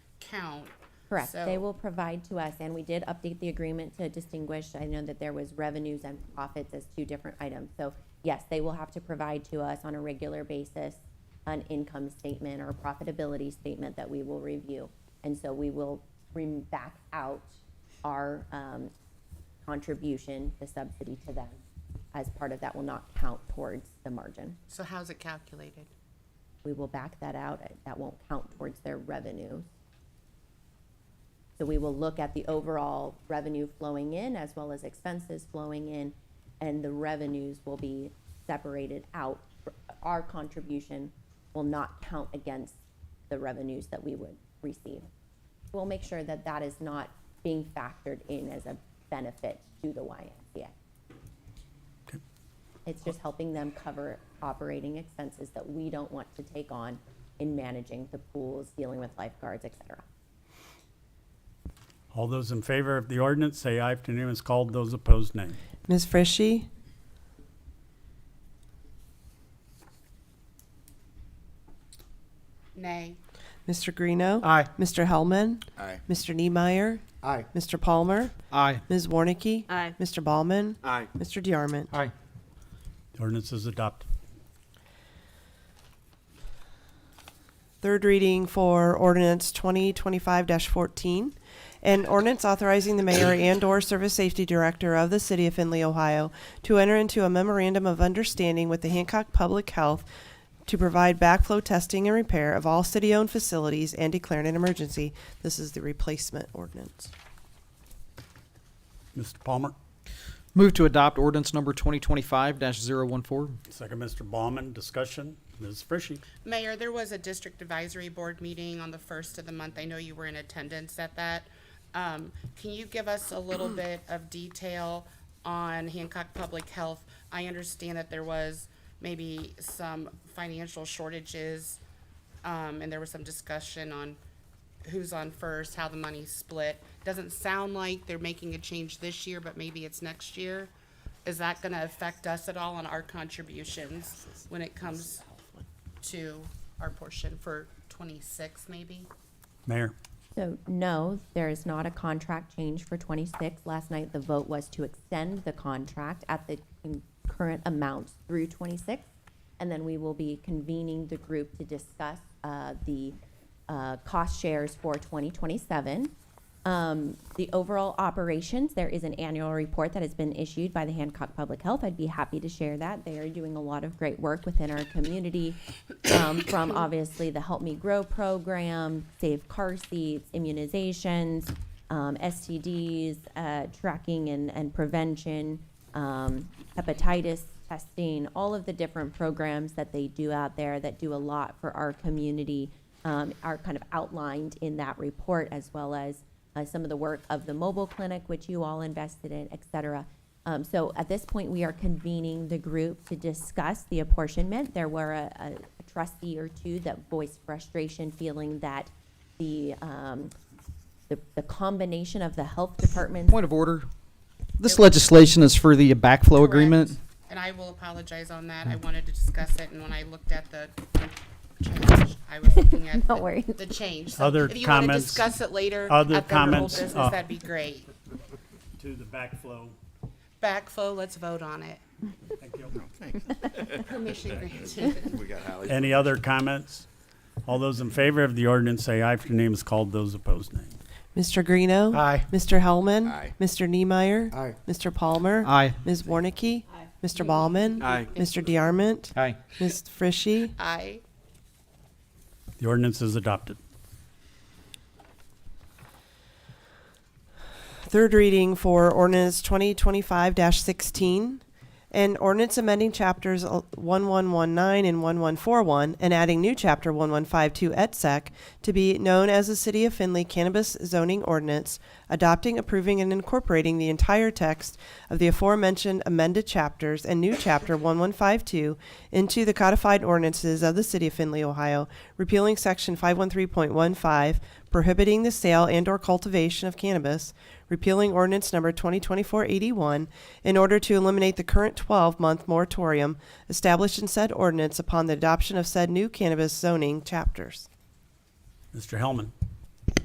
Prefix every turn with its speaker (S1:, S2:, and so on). S1: account.
S2: Correct, they
S1: So-
S2: will provide to us, and we did update the agreement to distinguish, I know that there was revenues and profits as two different items. So yes, they will have to provide to us on a regular basis an income statement or a profitability statement that we will review. And so we will bring back out our um, contribution, the subsidy to them, as part of that will not count towards the margin.
S1: So how's it calculated?
S2: We will back that out. That won't count towards their revenues. So we will look at the overall revenue flowing in as well as expenses flowing in, and the revenues will be separated out. Our contribution will not count against the revenues that we would receive. We'll make sure that that is not being factored in as a benefit to the YMCA. It's just helping them cover operating expenses that we don't want to take on in managing the pools, dealing with lifeguards, et cetera.
S3: All those in favor of the ordinance, say aye. If the name is called, those opposed, nay.
S4: Ms. Frishy,
S1: Nay.
S4: Mr. Greeno.
S5: Aye.
S4: Mr. Hellman.
S6: Aye.
S4: Mr. Niemeyer.
S5: Aye.
S4: Mr. Palmer.
S5: Aye.
S4: Ms. Warnicki.
S7: Aye.
S4: Mr. Ballman.
S6: Aye.
S4: Mr. DeArmond.
S5: Aye.
S3: The ordinance is adopted.
S4: Third reading for ordinance twenty twenty-five fourteen. An ordinance authorizing the mayor and/or service safety director of the city of Findlay, Ohio, to enter into a memorandum of understanding with the Hancock Public Health to provide backflow testing and repair of all city-owned facilities and declaring an emergency. This is the replacement ordinance.
S3: Mr. Palmer,
S5: Move to adopt ordinance number 2025-014.
S3: second Mr. Bauman. discussion. Ms. Frishy.
S1: Mayor, there was a district advisory board meeting on the first of the month. I know you were in attendance at that. Um, can you give us a little bit of detail on Hancock Public Health? I understand that there was maybe some financial shortages, um, and there was some discussion on who's on first, how the money's split. Doesn't sound like they're making a change this year, but maybe it's next year. Is that gonna affect us at all on our contributions when it comes to our portion for twenty-six, maybe?
S3: Mayor,
S2: So no, there is not a contract change for twenty-six. Last night, the vote was to extend the contract at the current amounts through twenty-six. And then we will be convening the group to discuss, uh, the, uh, cost shares for twenty twenty-seven. Um, the overall operations, there is an annual report that has been issued by the Hancock Public Health. I'd be happy to share that. They are doing a lot of great work within our community, um, from obviously the Help Me Grow program, Save Car Seats, immunizations, um, STDs, uh, tracking and, and prevention, um, hepatitis testing, all of the different programs that they do out there that do a lot for our community um, are kind of outlined in that report, as well as uh, some of the work of the mobile clinic, which you all invested in, et cetera. Um, so at this point, we are convening the group to discuss the apportionment. There were a, a a trustee or two that voiced frustration, feeling that the um, the, the combination of the health department's
S5: Point of order. This legislation is for the backflow agreement.
S1: Correct. And I will apologize on that. I wanted to discuss it, and when I looked at the change, I was looking at
S2: Don't
S1: the-
S2: worry.
S1: the change. So
S3: Other
S1: If you want to
S3: comments?
S1: discuss it later
S3: Other
S1: after your old
S3: comments?
S1: business,
S3: Uh,
S1: that'd be great.
S3: to the backflow.
S1: Backflow, let's vote on it.
S3: Thank you.
S1: Permission granted.
S6: We got Hallie.
S3: Any other comments? All those in favor of the ordinance, say aye. If your name is called, those opposed, nay.
S4: Mr. Greeno.
S5: Aye.
S4: Mr. Hellman.
S6: Aye.
S4: Mr. Niemeyer.
S5: Aye.
S4: Mr. Palmer.
S5: Aye.
S4: Ms. Warnicki. Mr. Ballman.
S6: Aye.
S4: Mr. DeArmond.
S5: Aye.
S4: Ms. Frishy.
S1: Aye.
S3: The ordinance is adopted.
S4: Third reading for ordinance twenty twenty-five sixteen. An ordinance amending chapters one one one nine and one one four one and adding new chapter one one five two et sec to be known as the City of Findlay Cannabis Zoning Ordinance, adopting, approving, and incorporating the entire text of the aforementioned amended chapters and new chapter one one five two into the codified ordinances of the City of Findlay, Ohio, repealing section five one three point one five, prohibiting the sale and or cultivation of cannabis, repealing ordinance number 2024-81 in order to eliminate the current 12-month moratorium established in said ordinance upon the adoption of said new cannabis zoning chapters.
S3: Mr. Hellman,